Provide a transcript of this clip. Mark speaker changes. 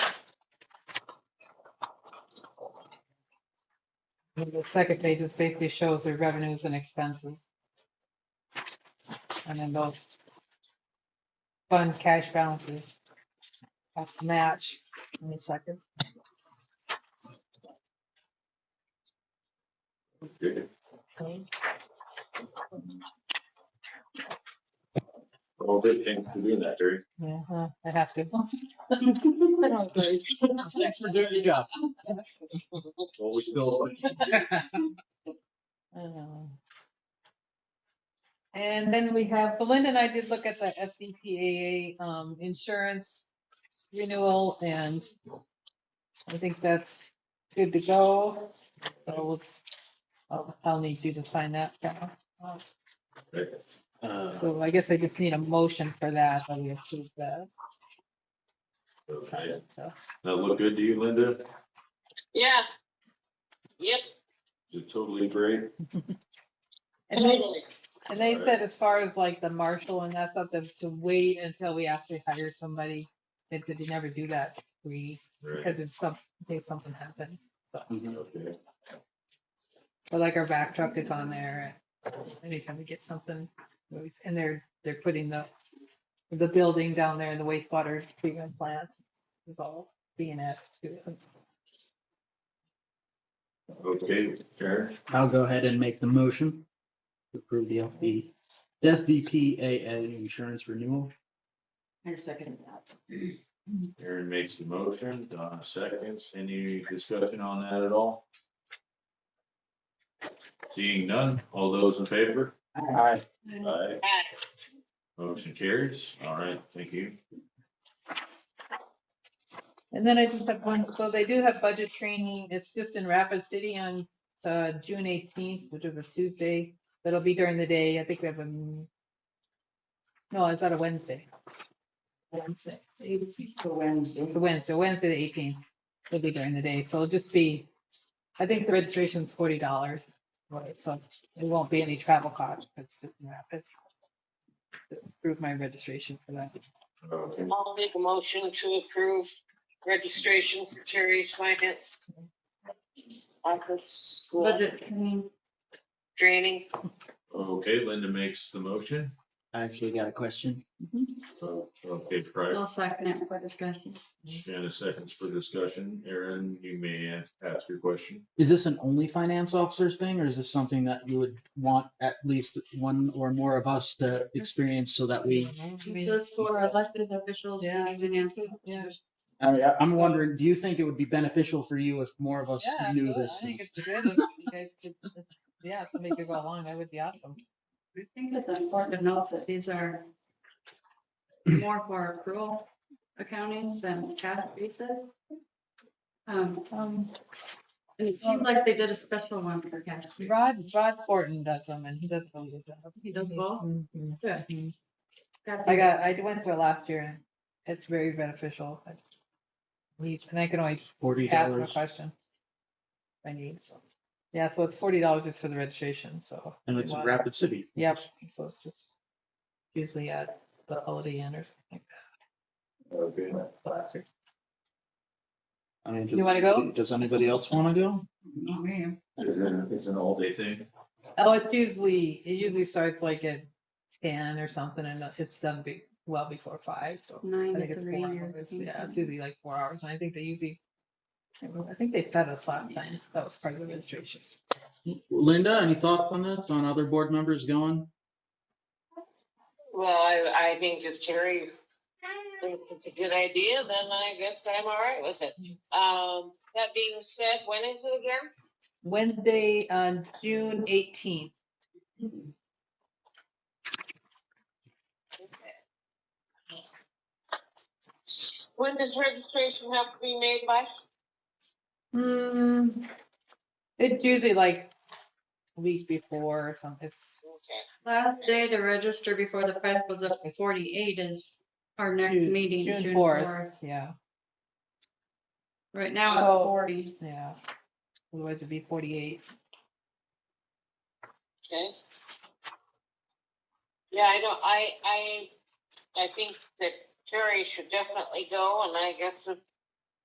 Speaker 1: And the second page just basically shows their revenues and expenses. And then those fund cash balances have to match in the second.
Speaker 2: Okay.
Speaker 1: page.
Speaker 2: All good things for doing that, Terry.
Speaker 1: Yeah, huh, I have to.
Speaker 3: Thanks for doing your job.
Speaker 2: Well, we still.
Speaker 1: Um, And then we have, Belinda and I did look at the SDPAA um, insurance renewal and I think that's good to go. So we'll, I'll- I'll need you to sign that. Val. So I guess I just need a motion for that, that we approve that.
Speaker 2: Okay. That look good to you, Linda?
Speaker 4: Yeah. Yep,
Speaker 2: Is it totally great?
Speaker 1: And they,
Speaker 4: totally.
Speaker 1: and they
Speaker 2: Alright.
Speaker 1: said as far as like the marshal and that stuff, to to wait until we actually hire somebody. They said you never do that, we.
Speaker 2: Right.
Speaker 1: Because it's some, in case something happened.
Speaker 2: Okay.
Speaker 1: So like our back truck is on there. and Anytime we get something, we always- and they're, they're putting the, the building down there and the wastewater treatment plant is all being at.
Speaker 2: Okay, Karen,
Speaker 3: I'll go ahead and make the motion to approve the LP, SDPAA insurance renewal.
Speaker 5: I second that.
Speaker 2: Karen makes the motion, Donna seconds. Any discussion on that at all? Seeing none, all those in favor? Aye.
Speaker 3: Aye.
Speaker 4: Aye.
Speaker 2: Motion carries. All right, thank you.
Speaker 1: And then I just have one, so they do have budget training. It's just in Rapid City on uh, June eighteenth, which is a Tuesday. That'll be during the day. I think we have a, m- no, it's on a Wednesday. Wednesday.
Speaker 5: For Wednesday.
Speaker 1: It's a Wednesday, Wednesday the eighteenth, it'll be during the day, so it'll just be, I think the registration's forty dollars. Right, so it won't be any travel cost, it's just rapid. Approve my registration for that.
Speaker 2: Okay.
Speaker 4: I'll make a motion to approve registration for Terry's finance office school
Speaker 5: Budget committee.
Speaker 4: training.
Speaker 2: Okay, Linda makes the motion.
Speaker 3: I actually got a question.
Speaker 2: Okay, prior.
Speaker 5: I'll second it for discussion.
Speaker 2: Shannon seconds for discussion. Aaron, you may ask ask your question.
Speaker 3: Is this an only finance officers thing, or is this something that you would want at least one or more of us to experience so that we?
Speaker 5: This is for elected officials.
Speaker 1: Yeah.
Speaker 5: meeting and answers.
Speaker 1: Yeah.
Speaker 3: I mean, I- I'm wondering, do you think it would be beneficial for you if more of us
Speaker 1: Yeah,
Speaker 3: knew
Speaker 1: absolutely. I
Speaker 3: this?
Speaker 1: think
Speaker 3: stuff?
Speaker 1: it's good if you guys could- if- Yeah, if somebody could go along, that would be awesome.
Speaker 5: I think it's important to note that these are more for accrual accounting than cash basis. Um,
Speaker 1: Um,
Speaker 5: and it seems like they did a special one for cash. basis.
Speaker 1: Rod, Rod Fortin does them and he does a really good job.
Speaker 5: He does both?
Speaker 1: Mhm.
Speaker 5: Good.
Speaker 1: Mhm.
Speaker 5: Got
Speaker 1: I
Speaker 5: the-
Speaker 1: got, I went to it last year and it's very beneficial. I- We, and I can always
Speaker 3: Forty
Speaker 1: ask them a
Speaker 3: dollars,
Speaker 1: question. if I need, so, yeah, so it's forty dollars just for the registration, so,
Speaker 3: and it's
Speaker 1: Wow.
Speaker 3: Rapid City.
Speaker 1: yep, so it's just usually at the Holiday Inn or something like
Speaker 2: Okay.
Speaker 1: that. so that's it.
Speaker 3: I mean,
Speaker 1: You wanna go?
Speaker 3: Does anybody else wanna go?
Speaker 5: Not me.
Speaker 2: It's an, it's an all day thing.
Speaker 1: Oh, it's usually, it usually starts like at ten or something and it's done be, well before five, so. I
Speaker 5: Nine
Speaker 1: think
Speaker 5: to
Speaker 1: it's
Speaker 5: three
Speaker 1: four
Speaker 5: or
Speaker 1: hours, yeah, it's
Speaker 5: something.
Speaker 1: usually like four hours, and I think they usually, I don't know, I think they fed us last time, that was part of the registration.
Speaker 3: Linda, any thoughts on this, on other board members going?
Speaker 4: Well, I, I think if Terry thinks it's a good idea, then I guess I'm all right with it. Um, that being said, when is it again?
Speaker 1: Wednesday, uh, June eighteenth.
Speaker 4: When does registration have to be made by?
Speaker 1: Hmm,
Speaker 5: Mm-hmm.
Speaker 1: it's usually like a week before or something, it's,
Speaker 4: Okay,
Speaker 5: Last day to register before the price was up to forty-eight is our next
Speaker 1: June-
Speaker 5: meeting,
Speaker 1: June
Speaker 5: June
Speaker 1: fourth.
Speaker 5: fourth.
Speaker 1: yeah,
Speaker 5: Right now it's
Speaker 1: Oh.
Speaker 5: forty.
Speaker 1: yeah. Otherwise it'd be forty-eight.
Speaker 4: okay. Yeah, I don't, I, I, I think that Terry should definitely go, and I guess if